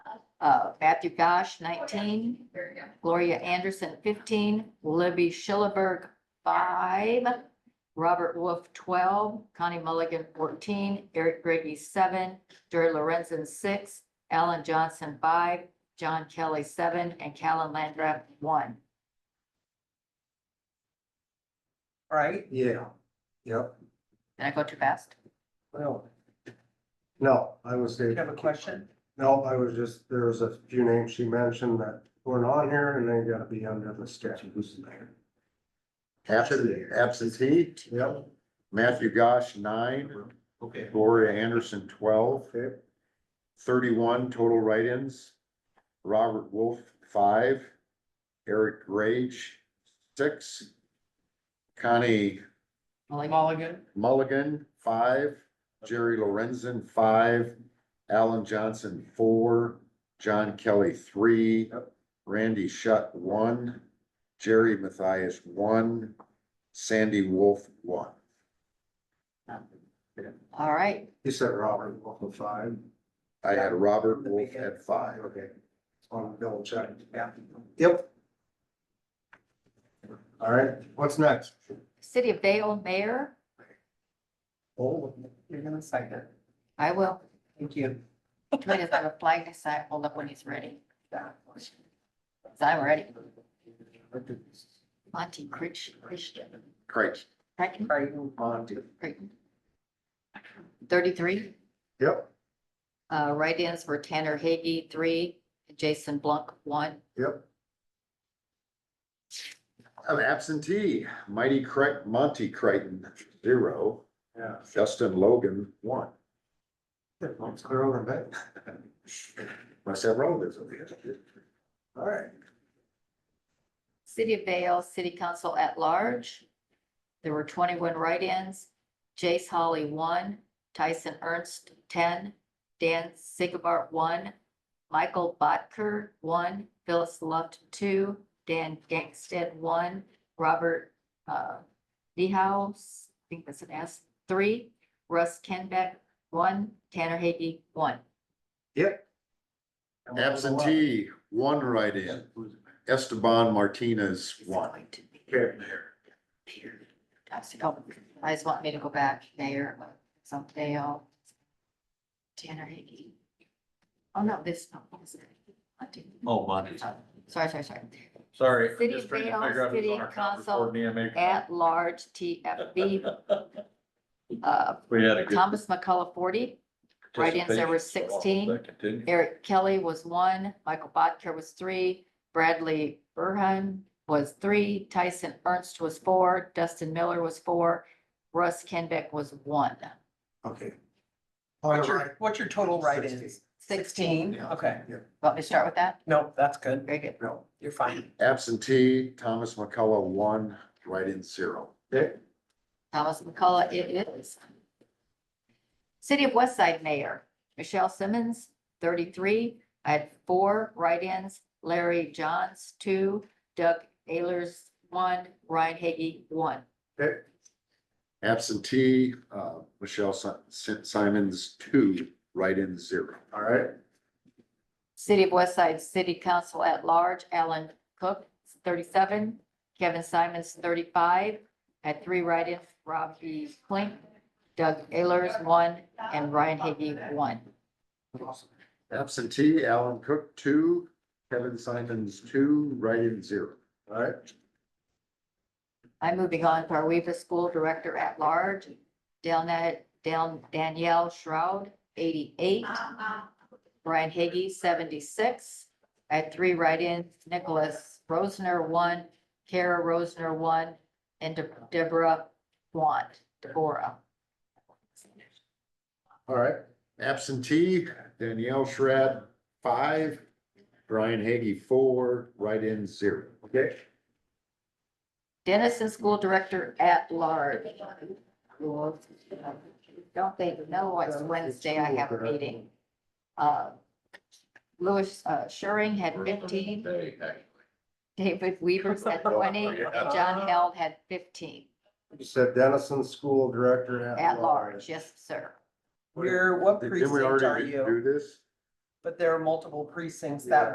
uh, Matthew Gosh, nineteen, Gloria Anderson, fifteen, Libby Schillerberg, five, Robert Wolf, twelve, Connie Mulligan, fourteen, Eric Brady, seven, Jerry Lorenzen, six, Alan Johnson, five, John Kelly, seven, and Callan Landgraf, one. right? Yeah, yep, Did I go too fast? well. No, I was You have there, a question? no, I was just, there was a few names she mentioned that weren't on here and they gotta be under the statute. Absentee, absentee, Yep, Matthew Gosh, nine, Okay. Gloria Anderson, 12, okay, 31 total write-ins. Robert Wolf, five, Eric Rage, six, Connie Mulligan, Mulligan, Mulligan, five, Jerry Lorenzen, five, Alan Johnson, four, John Kelly, three, Yep. Randy Shutt, one, Jerry Matthias, one, Sandy Wolf, one. all right, you said Robert, Wolf, five, I had Robert Wolf at five. okay, on double check, yeah, yep. All right, what's next? City of Dale Mayor, Oh, you're gonna second. I will, Thank you. Wait, is that a flag to sign, hold up when he's ready? So I'm ready, Monty Critch, Christian, Great. Crichton, Are you on to? Crichton. Thirty-three, Yep, uh, write-ins were Tanner Hagee, three, Jason Blunk, one. yep, An absentee, Mighty Crichton, Monty Crichton, zero, yeah, Justin Logan, one. let's clear over that, Must have relatives over here. all right. City of Vale City Council at Large. There were twenty-one write-ins. Jace Holly, one, Tyson Ernst, ten, Dan Sigabart, one, Michael Botker, one, Phyllis Luft, two, Dan Gangstead, one, Robert uh, Dehouse, I think that's an S, three, Russ Kenbeck, one, Tanner Hagee, one. Absentee, one write-in, Esteban Martinez, one. Okay. I said, oh, I just want me to go back there someday, I'll. Tanner Hagee. Oh, no, this, no, what is it? I didn't- Oh, Monty's. Sorry, sorry, sorry. Sorry. I'm City just trying to Vale, figure out who's City on our conference Council board, me and make- At large TFB, uh, We had a good. Thomas McCullough forty, write-ins, there were participation, so I'll 16. let that continue. Eric Kelly was one, Michael Bodker was three, Bradley Burhan was three, Tyson Ernst was four, Dustin Miller was four, Russ Kenbeck was one. Okay. What's your, what's your total write-ins? Sixteen, Yeah. okay. Want me to start with that? No, that's good. Very good. No, You're fine. Absentee, Thomas McCullough, one, write-in, zero. okay, Thomas McCullough, it is. City of West Side Mayor, Michelle Simmons, thirty-three. I had four write-ins, Larry Johns, two, Doug Ayers, one, Ryan Hagee, one. okay, Absentee, uh, Michelle Si- Si- Simons, two, write-in, zero. all right, City of West Side City Council at Large, Alan Cook, thirty-seven. Kevin Simons, thirty-five. I Had three write-ins, Robbie Klink, Doug Ayers, one, and Ryan Hagee, one. Absentee, Alan Cook, two, Kevin Simons, two, write-in, zero. all right. I'm moving on to our Weaver School Director at Large, Dana- Dan- Danielle Shroud, eighty-eight. Brian Higgy, seventy-six. I had three write-ins, Nicholas Rosner, one, Kara Rosner, one, and De- Deborah Blunt, Deborah. All right, Absentee, Danielle Schrad, five, Brian Hagey, four, write-in, zero. okay, Dennison School Director at Large. Don't they know it's Wednesday, I have a meeting. Uh, Louis uh, Schuring had fifteen. Hey, hey. David Weaver's had twenty, and John Held had fifteen, you said Dennison School Director at. at large, yes, sir. You're, what Didn't we precinct are already do you? this? but there are multiple precincts that